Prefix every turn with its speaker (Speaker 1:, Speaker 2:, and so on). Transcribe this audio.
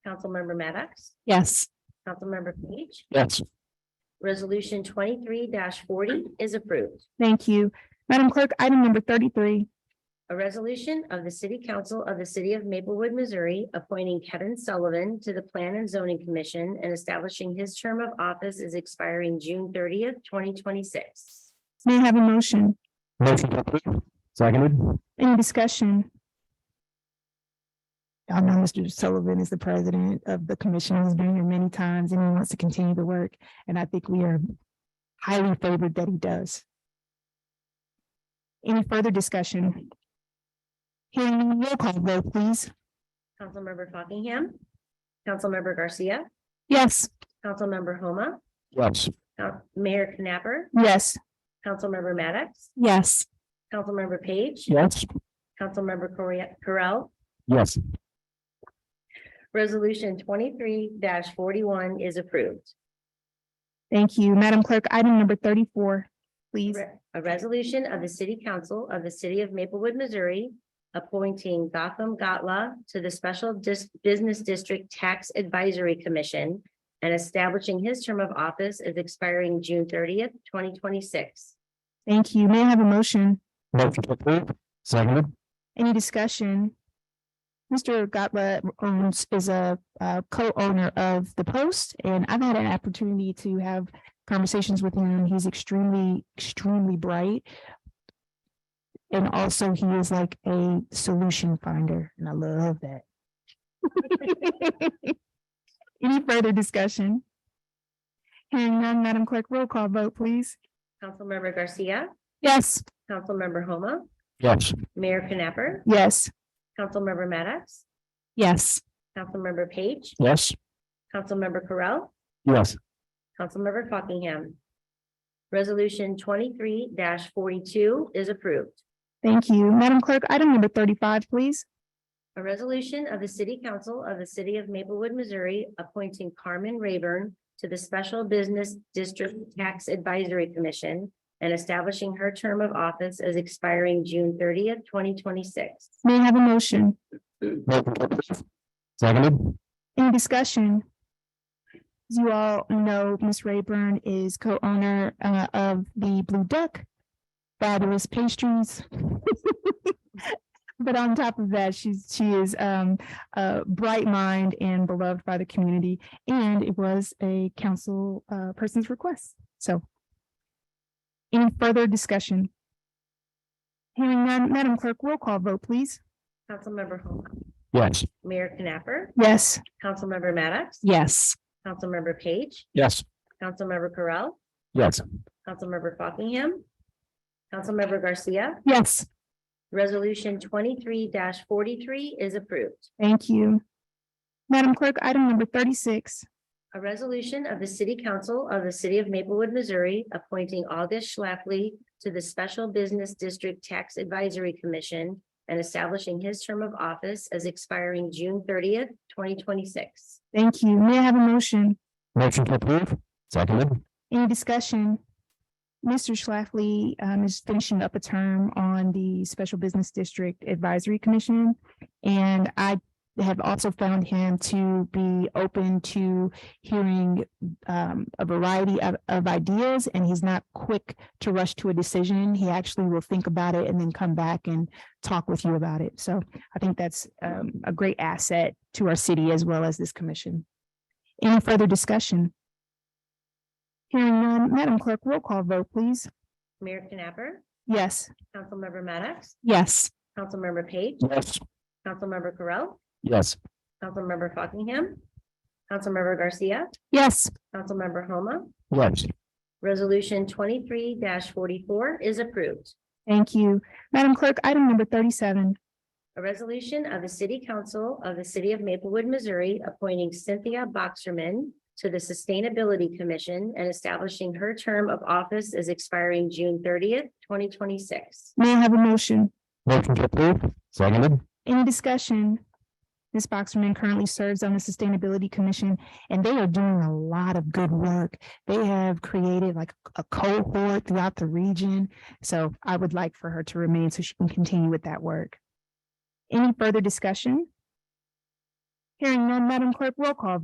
Speaker 1: Councilmember Maddox,
Speaker 2: Yes.
Speaker 1: Councilmember Page.
Speaker 3: Yes.
Speaker 1: Resolution twenty-three forty is approved.
Speaker 2: Thank you. Madam Clerk, item number thirty-three.
Speaker 1: A resolution of the City Council of the City of Maplewood, Missouri, appointing Kevin Sullivan to the Plan and Zoning Commission and establishing his term of office is expiring June thirtieth, twenty twenty-six.
Speaker 2: May I have a motion?
Speaker 3: Motion to approve. Seconded.
Speaker 2: Any discussion?
Speaker 4: Y'all know Mr. Sullivan is the president of the commission. He's been here many times and he wants to continue the work. And I think we are highly favored that he does.
Speaker 2: Any further discussion? Hearing roll call vote, please.
Speaker 1: Councilmember Fockingham, Councilmember Garcia,
Speaker 2: Yes.
Speaker 1: Councilmember Homa,
Speaker 3: Yes.
Speaker 1: Coun- Mayor Knapper,
Speaker 2: Yes.
Speaker 1: Councilmember Maddox,
Speaker 2: Yes.
Speaker 1: Councilmember Page,
Speaker 3: Yes.
Speaker 1: Councilmember Correa- Correll,
Speaker 3: Yes.
Speaker 1: Resolution twenty-three forty-one is approved.
Speaker 2: Thank you. Madam Clerk, item number thirty-four, please.
Speaker 1: Re- A resolution of the City Council of the City of Maplewood, Missouri, appointing Gotham Gatla to the Special Dis- Business District Tax Advisory Commission and establishing his term of office as expiring June thirtieth, twenty twenty-six.
Speaker 2: Thank you. May I have a motion?
Speaker 3: Motion to approve. Seconded.
Speaker 2: Any discussion? Mr. Gottlieb owns, is a, uh, co-owner of The Post, and I've had an opportunity to have conversations with him. He's extremely, extremely bright.
Speaker 4: And also he is like a solution finder and I love that.
Speaker 2: Any further discussion? Hearing none, Madam Clerk, roll call vote, please.
Speaker 1: Councilmember Garcia,
Speaker 2: Yes.
Speaker 1: Councilmember Homa,
Speaker 3: Yes.
Speaker 1: Mayor Knapper,
Speaker 2: Yes.
Speaker 1: Councilmember Maddox,
Speaker 2: Yes.
Speaker 1: Councilmember Page,
Speaker 3: Yes.
Speaker 1: Councilmember Correll,
Speaker 3: Yes.
Speaker 1: Councilmember Fockingham. Resolution twenty-three forty-two is approved.
Speaker 2: Thank you. Madam Clerk, item number thirty-five, please.
Speaker 1: A resolution of the City Council of the City of Maplewood, Missouri, appointing Carmen Rayburn to the Special Business District Tax Advisory Commission and establishing her term of office as expiring June thirtieth, twenty twenty-six.
Speaker 2: May I have a motion?
Speaker 3: Motion to approve. Seconded.
Speaker 2: Any discussion? As you all know, Miss Rayburn is co-owner uh, of the Blue Duck Fabulous Pastries. But on top of that, she's, she is um, a bright mind and beloved by the community, and it was a council uh, person's request, so. Any further discussion? Hearing none, Madam Clerk, roll call vote, please.
Speaker 1: Councilmember Homa,
Speaker 3: Yes.
Speaker 1: Mayor Knapper,
Speaker 2: Yes.
Speaker 1: Councilmember Maddox,
Speaker 2: Yes.
Speaker 1: Councilmember Page,
Speaker 3: Yes.
Speaker 1: Councilmember Correll,
Speaker 3: Yes.
Speaker 1: Councilmember Fockingham, Councilmember Garcia,
Speaker 2: Yes.
Speaker 1: Resolution twenty-three forty-three is approved.
Speaker 2: Thank you. Madam Clerk, item number thirty-six.
Speaker 1: A resolution of the City Council of the City of Maplewood, Missouri, appointing August Schlafly to the Special Business District Tax Advisory Commission and establishing his term of office as expiring June thirtieth, twenty twenty-six.
Speaker 2: Thank you. May I have a motion?
Speaker 3: Motion to approve. Seconded.
Speaker 2: Any discussion? Mr. Schlafly um, is finishing up a term on the Special Business District Advisory Commission. And I have also found him to be open to hearing um, a variety of, of ideas. And he's not quick to rush to a decision. He actually will think about it and then come back and talk with you about it. So I think that's um, a great asset to our city as well as this commission. Any further discussion? Hearing none, Madam Clerk, roll call vote, please.
Speaker 1: Mayor Knapper,
Speaker 2: Yes.
Speaker 1: Councilmember Maddox,
Speaker 2: Yes.
Speaker 1: Councilmember Page,
Speaker 3: Yes.
Speaker 1: Councilmember Correll,
Speaker 3: Yes.
Speaker 1: Councilmember Fockingham, Councilmember Garcia,
Speaker 2: Yes.
Speaker 1: Councilmember Homa,
Speaker 3: Yes.
Speaker 1: Resolution twenty-three forty-four is approved.
Speaker 2: Thank you. Madam Clerk, item number thirty-seven.
Speaker 1: A resolution of the City Council of the City of Maplewood, Missouri, appointing Cynthia Boxerman to the Sustainability Commission and establishing her term of office as expiring June thirtieth, twenty twenty-six.
Speaker 2: May I have a motion?
Speaker 3: Motion to approve. Seconded.
Speaker 2: Any discussion? Ms. Boxerman currently serves on the Sustainability Commission, and they are doing a lot of good work. They have created like a cohort throughout the region, so I would like for her to remain so she can continue with that work. Any further discussion? Hearing none, Madam Clerk, roll call